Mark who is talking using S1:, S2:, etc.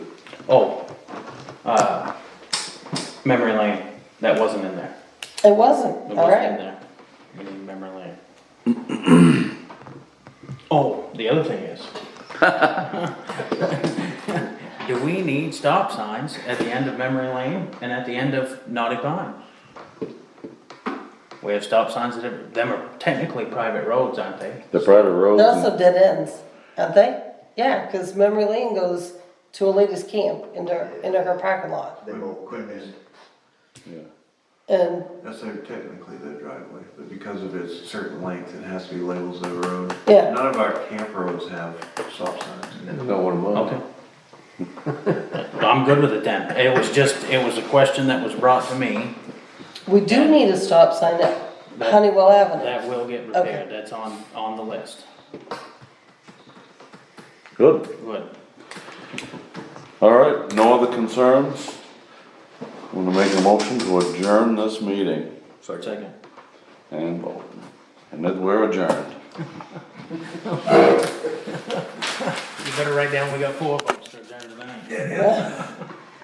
S1: Oh, uh, memory lane, that wasn't in there.
S2: It wasn't,
S1: It
S2: all
S1: wasn't in
S2: right.
S1: there. We need memory lane. Oh, the other thing is. Do we need stop signs at the end of memory lane and at the end of Naughty Pond? We have stop signs that are, them are technically private roads, aren't they?
S3: The private
S2: They're
S3: roads,
S2: also dead ends, aren't they? Yeah, because memory lane goes to a lady's camp into, into her parking lot.
S4: They both quit in.
S2: And,
S4: That's their, technically their driveway, but because of its certain length, it has to be labels of the road.
S2: Yeah.
S4: None of our camp roads have stop signs.
S3: not one of
S1: Okay.
S3: them.
S1: I'm good with it then. It was just, it was a question that was brought to me.
S2: we do need a stop sign at Honeywell Avenue.
S1: That will get
S2: Okay.
S1: repaired. That's on, on the list.
S3: Good,
S1: Good.
S3: all right, no other concerns? I'm gonna make a motion to adjourn this meeting
S1: Second.
S3: and vote, and then we're adjourned.
S1: You better write down, we got four votes to adjourn tonight.
S2: Yeah.